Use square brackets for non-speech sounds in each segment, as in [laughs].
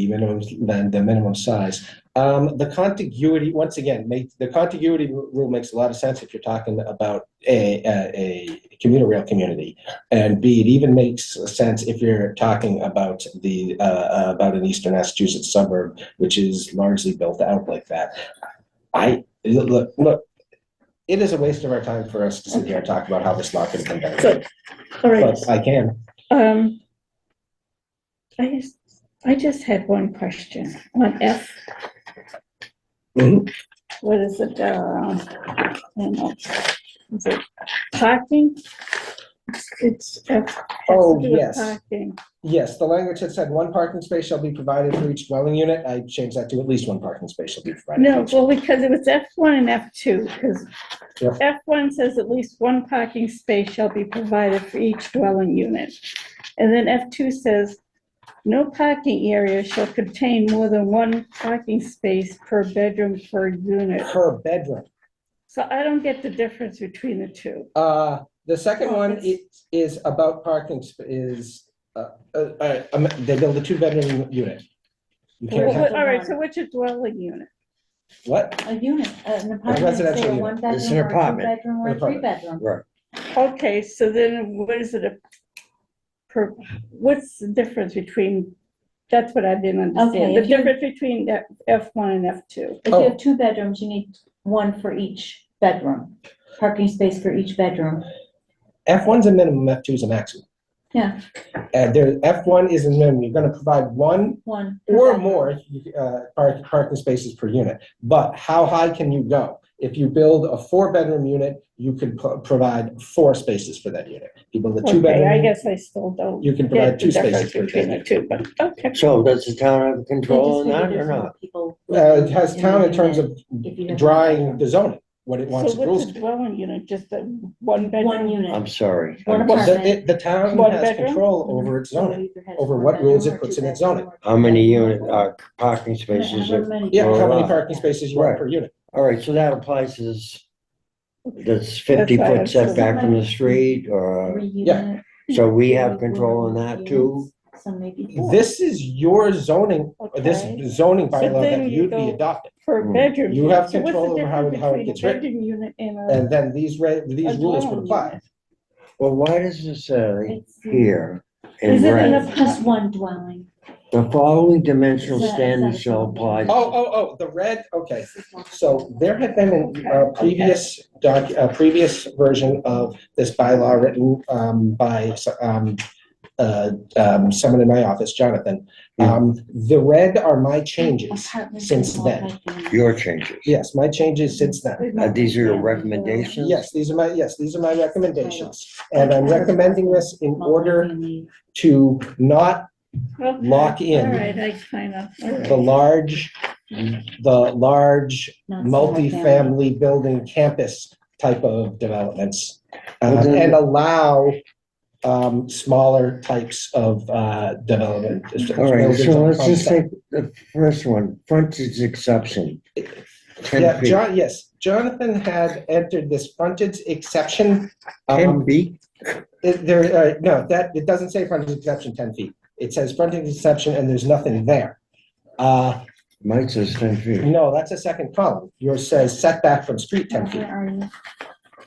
the minimum, than the minimum size. Um, the contiguity, once again, make, the contiguity ru- rule makes a lot of sense if you're talking about a, a, a commuter rail community. And B, it even makes sense if you're talking about the, uh, uh, about an eastern Massachusetts suburb, which is largely built out like that. I, look, look, it is a waste of our time for us to sit here and talk about how this law can come down. Good. All right, But I can. um. I just, I just had one question on F, Mhm. what is it, uh, I don't know. Is it parking? It's- It's F. has to Oh, do with yes. Parking, Yes, the language had said one parking space shall be provided for each dwelling unit. I changed that to at least one parking space shall be provided. for no, each- well, because it was F one and F two, because Yeah. F one says at least one parking space shall be provided for each dwelling unit. And then F two says, no parking area shall contain more than one parking space per bedroom per unit. Per bedroom. So I don't get the difference between the two. Uh, the second one i- is about parking sp- is, uh, uh, uh, um, they build a two bedroom unit. You can't have, Well, All right, so what's a dwelling unit? what? A unit, uh, an apartment, residential say a unit. one It's an bedroom or a two apartment. bedroom or An a three apartment. bedroom. Right, Okay, so then what is it a per, what's the difference between, that's what I didn't understand, Okay, the if you- difference between that F one and F two. If Oh. you have two bedrooms, you need one for each bedroom, parking space for each bedroom. F one's a minimum, F two's a maximum. Yeah, And there, F one is a minimum. You're gonna provide one one. per or bedroom. more, uh, park, parking spaces per unit. But how high can you go? If you build a four bedroom unit, you could pro- provide four spaces for that unit. You build a two Okay, I bedroom, guess I still don't you can get provide the two spaces difference per between the unit. two, but, okay. so does the town have They control on just that figured or there's more not? people Uh, it has living town in a terms unit of if you have- drawing the zoning, what it wants So the rules what's to be. a dwelling unit, just a one bedroom? One I'm unit. sorry. Um, One Well, the, apartment. it- the town One has bedroom? control over its So zoning. either has over one what bedroom rules it or puts two in its bedroom zoning. or two How many bedroom. unit, uh, parking spaces? However are- many- Yeah, how many Right. parking spaces you want per unit. All right, so that applies to this, this fifty That's right. foot setback from the street or, Three Yeah. unit, so we have one- control one on or that two too? units, Some maybe four. This is your zoning, this Okay. zoning bylaw then that you you'd be go- adopting. Per Hmm. bedroom. You unit. have So what's the control over how it- difference how it between a gets written. Bedroom unit and a. And then these re, these A rules would dwelling apply. unit. Well, why does it say It's, uh, here in Is it an red, It's just one dwelling. the following dimensional Is that- is standards that shall apply? something? Oh, oh, oh, the red, okay. This is one. So there had been a uh, previous doc, a previous version of this bylaw written um, by um, uh, um, someone in my office, Jonathan. Um, The red are my changes. Apartments since and then. multi-family. Your changes. Yes, my changes since then. Uh, these are your recommendations? Yes, these are my, yes, these are my recommendations. And I'm recommending this in order Multi-family. to not Okay. lock in. All right, I kind of, all right. the large, Mm-hmm. the large Not single-family. multifamily building campus type of developments. uh, Well, then- And allow um, smaller types of uh, development. All right, buildings so on let's just concept. take the first one, frontage exception. Yeah, Ten feet, John, yes, Jonathan had entered this frontage exception. ten um, feet? it- There, uh, no, that, it doesn't say frontage exception ten feet. It says frontage exception and there's nothing there. Uh, Mine says ten feet. No, that's a second column. Yours says setback from street ten feet. Where are you?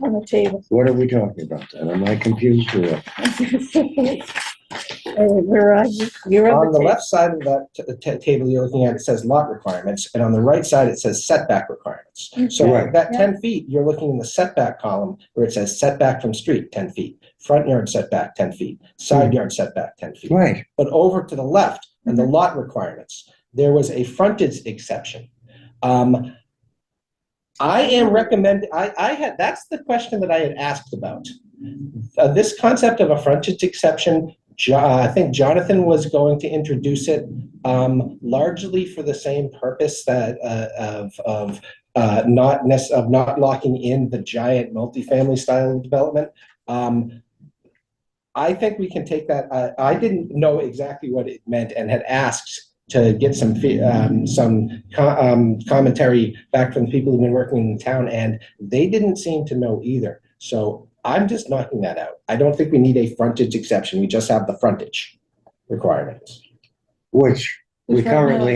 on the table. What are we talking about then? Am I confused or what? [laughs] All right, Where are you? You're On the table. left side of that t- t- table you're looking at, it says lot requirements, and on the right side, it says setback requirements. So Right. that Yeah. ten feet, you're looking in the setback column where it says setback from street, ten feet, front yard setback, ten feet, side yard setback, ten feet. Right, But over to the left, and the lot requirements, there was a frontage exception. Um, I am recommend, I, I had, that's the question that I had asked about. Uh, This concept of a frontage exception, Jo- uh, I think Jonathan was going to introduce it um, largely for the same purpose that, uh, of, of uh, not necess, of not locking in the giant multifamily style development. Um, I think we can take that, I, I didn't know exactly what it meant and had asked to get some, fe- um, some co- um, commentary back from the people who've been working in town, and they didn't seem to know either. So I'm just knocking that out. I don't think we need a frontage exception, we just have the frontage requirements. which we We've got no- currently